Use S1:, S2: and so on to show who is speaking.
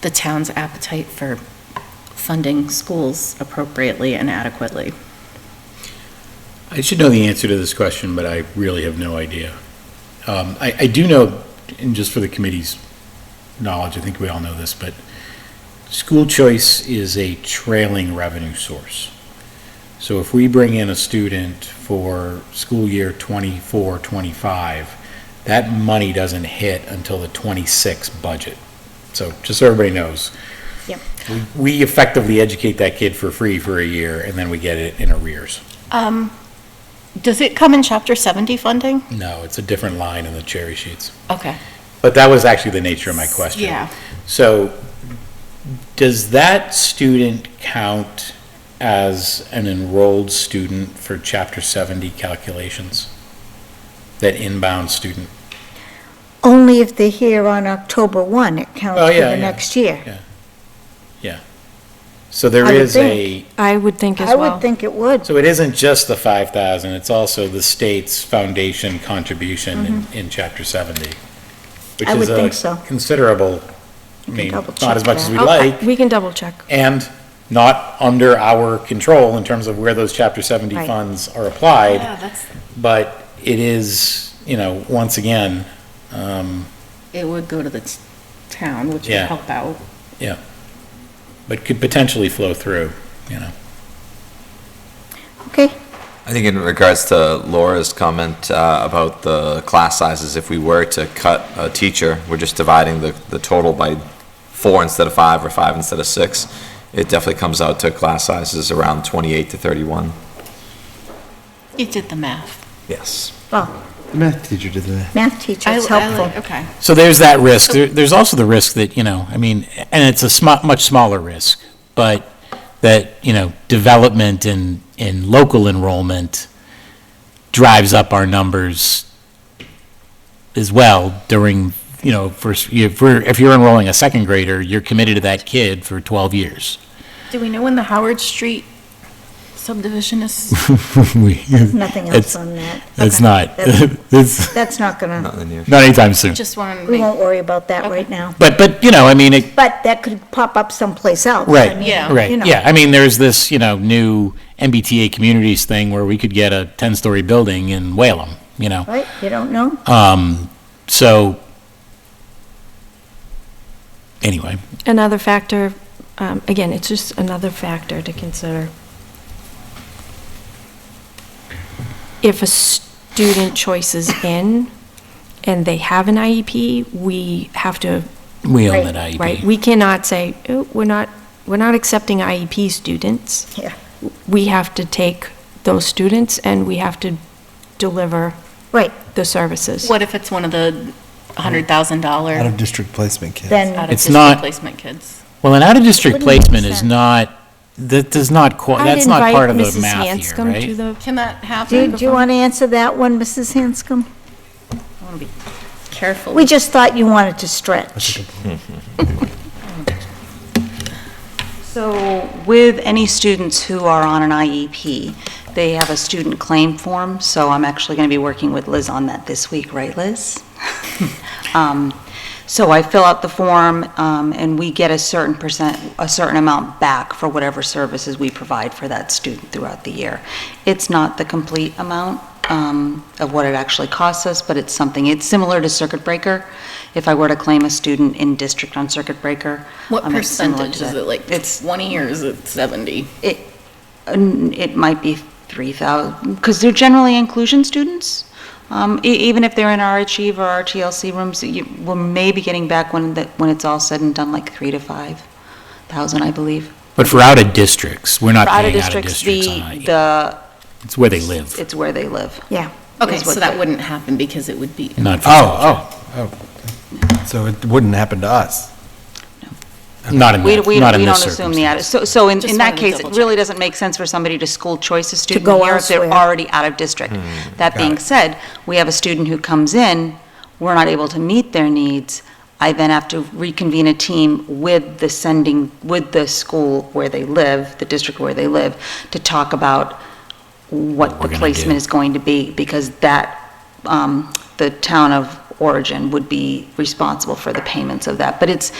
S1: the town's appetite for funding schools appropriately and adequately.
S2: I should know the answer to this question, but I really have no idea. Um, I, I do know, and just for the committee's knowledge, I think we all know this, but school choice is a trailing revenue source. So if we bring in a student for school year 24, 25, that money doesn't hit until the 26 budget. So just so everybody knows.
S1: Yep.
S2: we- We effectively educate that kid for free for a year, and then we get it in arrears.
S1: Um, does it come in chapter seventy funding?
S2: No, it's a different line in the cherry sheets.
S1: Okay.
S2: But that was actually the nature of my question.
S1: Yeah.
S2: So does that student count as an enrolled student for Chapter 70 calculations? That inbound student?
S3: Only if they're here on October 1, it counts
S2: Oh,
S3: for
S2: yeah,
S3: the
S2: yeah.
S3: next year.
S2: So there
S3: I would
S2: is a,
S4: I would think as
S3: I would
S4: well.
S3: think it would.
S2: so it isn't just the 5,000, it's also the state's foundation contribution in, in Chapter 70?
S3: Mm-hmm. I would think so.
S2: Which is a considerable, I
S3: can
S2: mean,
S3: double
S2: not as
S3: check
S2: much as
S3: that. Oh,
S2: we
S4: I'll-
S2: like.
S4: We can double check.
S2: and not under our control in terms of where those Chapter 70
S3: Right.
S2: funds are applied,
S1: that's.
S2: but it is, you know, once again, um,
S1: It would go to the t- town, which would
S2: Yeah.
S1: help out.
S2: but could potentially flow through, you know.
S3: Okay,
S5: I think in regards to Laura's comment uh, about the class sizes, if we were to cut a teacher, we're just dividing the, the total by four instead of five or five instead of six. It definitely comes out to class sizes around 28 to 31.
S1: You did the math.
S5: Yes.
S6: The math teacher did that.
S3: math teacher, it's
S1: I- I like-
S3: helpful.
S1: Okay.
S2: So there's that risk. There- There's also the risk that, you know, I mean, and it's a sma- much smaller risk, but that, you know, development in, in local enrollment drives up our numbers as well during, you know, first, if we're, if you're enrolling a second grader, you're committed to that kid for 12 years.
S1: Do we know when the Howard Street subdivision is?
S2: We-
S3: Nothing
S2: It's-
S3: else on that.
S2: It's
S3: Okay.
S2: not,
S3: That's-
S2: it's
S3: That's not gonna,
S5: Not in the near.
S2: not anytime soon.
S1: Just want to
S3: we
S1: make,
S3: won't worry about that right
S1: Okay.
S3: now.
S2: But, but, you know, I mean, it,
S3: But that could pop up someplace else. I
S2: Right,
S3: mean,
S1: Yeah.
S3: you
S2: Right,
S3: know.
S2: yeah, I mean, there's this, you know, new MBTA communities thing where we could get a 10-story building in Whalum, you know?
S3: Right, you don't know?
S2: Um, so, anyway,
S4: Another factor, um, again, it's just another factor to consider. If a student choice is in and they have an IEP, we have
S2: E
S4: to,
S2: we own
S3: Right,
S2: that E IEP.
S4: right? We cannot say, "Oh, we're not, we're not accepting IEP students.
S3: Yeah.
S4: We have to take those students and we have to deliver
S3: Right,
S4: the services.
S1: what if it's one of the
S6: Out
S1: $100,000
S6: of district placement kids.
S3: then,
S2: It's
S1: out-of-district
S2: not-
S1: placement kids?
S2: Well, an out-of-district
S3: Wouldn't make
S2: placement is
S3: sense.
S2: not, that does not, qua- that's not part of the math here,
S4: I'd invite Mrs. Hanscom to
S2: right?
S4: the
S1: Can that happen?
S3: do do you want to answer that one, Mrs. Hanscom?
S1: I want to be careful.
S3: We just thought you wanted to
S6: That's a
S3: stretch.
S6: good
S7: So with any students who are on an IEP, they have a student claim form, so I'm actually going to be working with Liz on that this week, right, Liz? Um, So I fill out the form, um, and we get a certain percent, a certain amount back for whatever services we provide for that student throughout the year. It's not the complete amount um, of what it actually costs us, but it's something, it's similar to circuit breaker. If I were to claim a student in district on circuit breaker,
S1: What
S7: um, it's similar
S1: percentage
S7: to
S1: is
S7: that.
S1: it, like
S7: It's-
S1: 20 or is it 70?
S7: N- It might be 3,000, because they're generally inclusion students. Um, e- Even if they're in our Achieve or our TLC rooms, you- we're maybe getting back when, the- when it's all said and done, like 3 to 5,000, I believe.
S2: But for out-of-districts, we're not
S7: For
S2: paying
S7: out-of-districts,
S2: out-of-districts
S7: the,
S2: on IEP.
S7: the,
S2: It's where they live,
S7: it's where they live.
S3: Yeah,
S1: Okay,
S7: is what
S1: so that
S7: the-
S1: wouldn't happen because it would be,
S2: not for
S6: Oh, oh, oh. So it wouldn't happen to us.
S2: not in,
S7: We
S2: that-
S7: we-
S2: not in
S7: we
S2: this
S7: don't assume the, out-
S2: circumstance.
S7: so, so in
S1: Just
S7: in that
S1: wanted to
S7: case, it
S1: double
S7: really doesn't make sense for somebody to school choice a student
S3: go
S7: here if they're
S3: elsewhere.
S7: already out of district.
S2: Hmm,
S7: That being said, we have a student who comes in, we're not able to meet their needs, I then have to reconvene a team with the sending, with the school where they live, the district where they live, to talk about what
S2: we're
S7: the
S2: gonna
S7: placement
S2: do.
S7: is going to be, because that, um, the town of origin would be responsible for the payments of that. But it's,